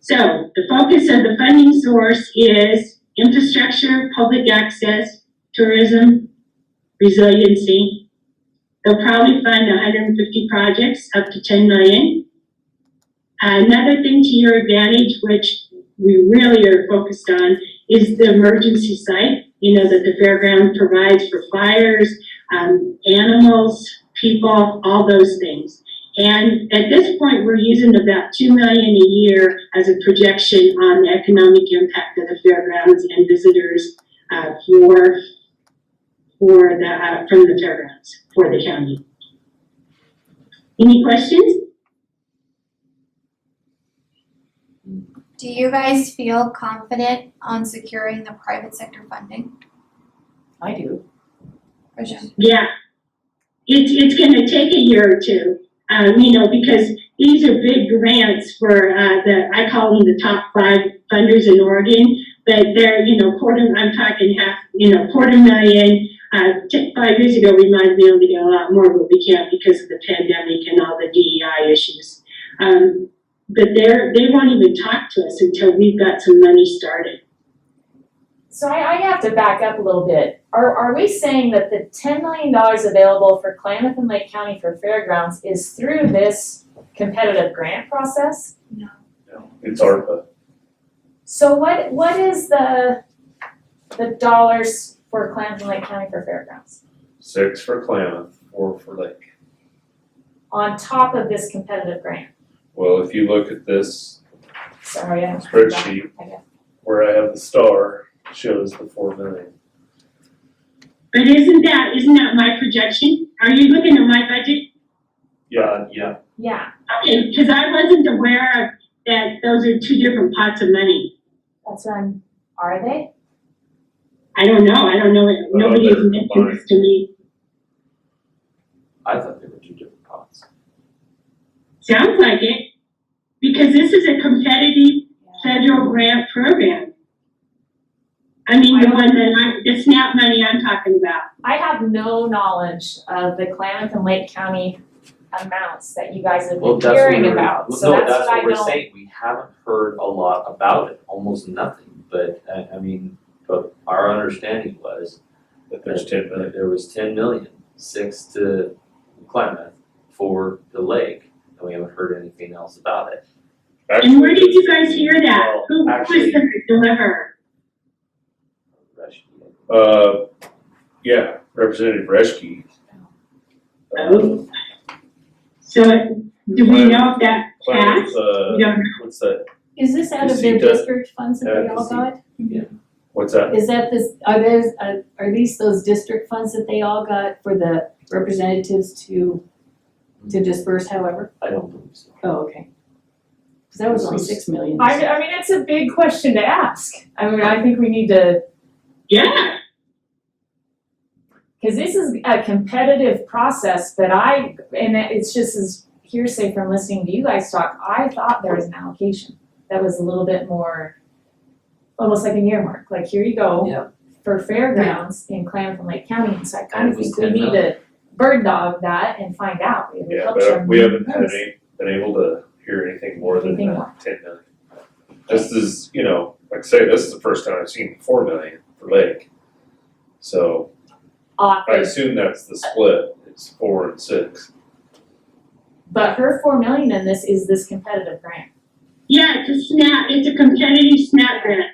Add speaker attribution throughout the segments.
Speaker 1: So the focus of the funding source is infrastructure, public access, tourism, resiliency. They'll probably fund hundred and fifty projects up to ten million. Another thing to your advantage, which we really are focused on, is the emergency site, you know, that the fairground provides for fires, um, animals, people, all those things. And at this point, we're using about two million a year as a projection on the economic impact of the fairgrounds and visitors, uh, for, for the, uh, from the fairgrounds, for the county. Any questions?
Speaker 2: Do you guys feel confident on securing the private sector funding?
Speaker 3: I do.
Speaker 2: Rajan?
Speaker 1: Yeah. It's, it's gonna take a year or two, uh, you know, because these are big grants for, uh, the, I call them the top five funders in Oregon. But they're, you know, quarter, I'm talking half, you know, quarter million, uh, t- five years ago, we might be able to get a lot more, but we can't because of the pandemic and all the DEI issues. Um, but they're, they won't even talk to us until we've got some money started.
Speaker 3: So I, I have to back up a little bit. Are, are we saying that the ten million dollars available for Klamath and Lake County for fairgrounds is through this competitive grant process?
Speaker 2: No.
Speaker 4: No, It's ARPA.
Speaker 3: So what, what is the, the dollars for Klamath and Lake County for fairgrounds?
Speaker 4: Six for Klamath, four for Lake.
Speaker 3: On top of this competitive grant?
Speaker 4: Well, if you look at this
Speaker 3: Sorry, I'm.
Speaker 4: spreadsheet,
Speaker 3: Okay.
Speaker 4: where I have the star, shows the four million.
Speaker 1: But isn't that, isn't that my projection? Are you looking at my budget?
Speaker 4: Yeah, yeah.
Speaker 3: Yeah,
Speaker 1: Okay, because I wasn't aware of that those are two different pots of money.
Speaker 3: that's what I'm, are they?
Speaker 1: I don't know, I don't know,
Speaker 5: Oh,
Speaker 1: nobody has
Speaker 4: they're
Speaker 1: mentioned this to me.
Speaker 4: I thought they were two different pots.
Speaker 1: Sounds like it, because this is a competitive federal grant program. I mean, the one that I, the SNAP money I'm talking about.
Speaker 3: I have no knowledge of the Klamath and Lake County amounts that you guys have
Speaker 5: Well,
Speaker 3: been
Speaker 5: that's what
Speaker 3: hearing
Speaker 5: we're-
Speaker 3: about,
Speaker 5: well,
Speaker 3: so
Speaker 5: no,
Speaker 3: that's what I
Speaker 5: what we're
Speaker 3: don't-
Speaker 5: saying, we haven't heard a lot about it, almost nothing, but I I mean, but our understanding was
Speaker 4: That there's ten
Speaker 5: that
Speaker 4: million.
Speaker 5: there was ten million, six to Klamath, for the lake, and we haven't heard anything else about it.
Speaker 1: And where did
Speaker 4: Actually,
Speaker 1: you guys hear that?
Speaker 5: Well,
Speaker 1: Who who was
Speaker 5: actually-
Speaker 1: the deliverer?
Speaker 4: Uh, yeah, Representative Reschke.
Speaker 1: Oh.
Speaker 5: uh,
Speaker 1: So, do we know if that
Speaker 4: Klamath,
Speaker 1: passed?
Speaker 4: uh,
Speaker 1: We don't know.
Speaker 4: what's that,
Speaker 6: Is this out
Speaker 4: Is
Speaker 6: of
Speaker 4: he
Speaker 6: their
Speaker 4: the-
Speaker 6: district funds that they
Speaker 4: uh,
Speaker 6: all
Speaker 4: is he-
Speaker 6: got?
Speaker 4: what's that?
Speaker 6: Is that this, are those, uh, are these those district funds that they all got for the representatives to, to disperse however?
Speaker 5: I don't believe so.
Speaker 6: Oh, okay. Cause that was only
Speaker 5: This is-
Speaker 6: six million.
Speaker 3: I, I mean, it's a big question to ask. I mean, I think we need to,
Speaker 1: Yeah,
Speaker 3: because this is a competitive process, but I, and it- it's just as hearsay from listening to you guys talk, I thought there was an allocation that was a little bit more, almost like an earmark, like here you go.
Speaker 5: Yeah.
Speaker 3: For fairgrounds in Klamath and Lake County, and so I
Speaker 5: And
Speaker 3: kind
Speaker 5: it
Speaker 3: of
Speaker 5: was
Speaker 3: think we
Speaker 5: 10
Speaker 3: need to bird dog that and find out. It would
Speaker 4: Yeah,
Speaker 3: help
Speaker 4: but
Speaker 3: Sherman
Speaker 4: we haven't had
Speaker 3: Williams.
Speaker 4: any, been able to hear anything more than
Speaker 3: Anything
Speaker 4: uh,
Speaker 3: more.
Speaker 4: ten million. This is, you know, like I say, this is the first time I've seen four million for Lake. So
Speaker 3: off
Speaker 4: I
Speaker 3: of
Speaker 4: assume that's the split, it's four and six.
Speaker 3: But her four million in this is this competitive grant.
Speaker 1: yeah, it's a SNAP, it's a competitive SNAP grant.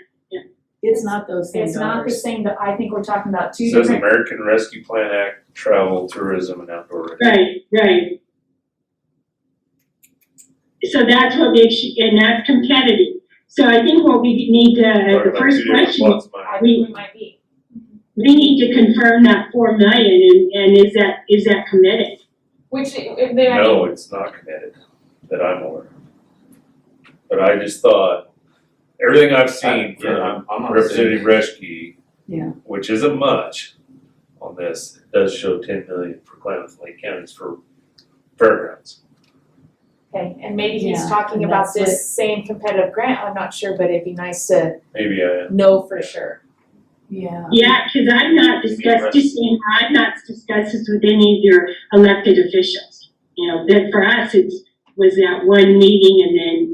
Speaker 6: It's not those same
Speaker 3: It's not the
Speaker 6: dollars.
Speaker 3: same, but I think we're talking about two
Speaker 4: Says
Speaker 3: different,
Speaker 4: American Rescue Plan Act, travel, tourism and outdoor.
Speaker 1: Right, right. So that's what makes, you- and that's competitive. So I think what we need to, uh,
Speaker 3: Uh,
Speaker 4: Talking
Speaker 1: the
Speaker 4: about
Speaker 1: first
Speaker 4: two different
Speaker 1: question,
Speaker 4: plots of money.
Speaker 3: I think we might be.
Speaker 1: we need to confirm that four million and, and is that, is that committed?
Speaker 3: Which, if they, I mean,
Speaker 4: No, it's not committed, that I'm aware of. But I just thought, everything I've seen from
Speaker 5: Yeah, I'm- I'm not
Speaker 4: Representative
Speaker 5: saying-
Speaker 4: Reschke.
Speaker 6: Yeah.
Speaker 4: Which isn't much on this, it does show ten million for Klamath Lake counties for fairgrounds.
Speaker 3: okay, and maybe he's
Speaker 6: Yeah,
Speaker 3: talking
Speaker 6: and
Speaker 3: about
Speaker 6: that's what-
Speaker 3: this same competitive grant, I'm not sure, but it'd be nice to
Speaker 4: Maybe I,
Speaker 3: know for sure.
Speaker 6: Yeah.
Speaker 1: Yeah, cause I've not discussed, just, you know, I've not discussed this with any of your elected officials. You know, that for us, it's, was that one meeting and then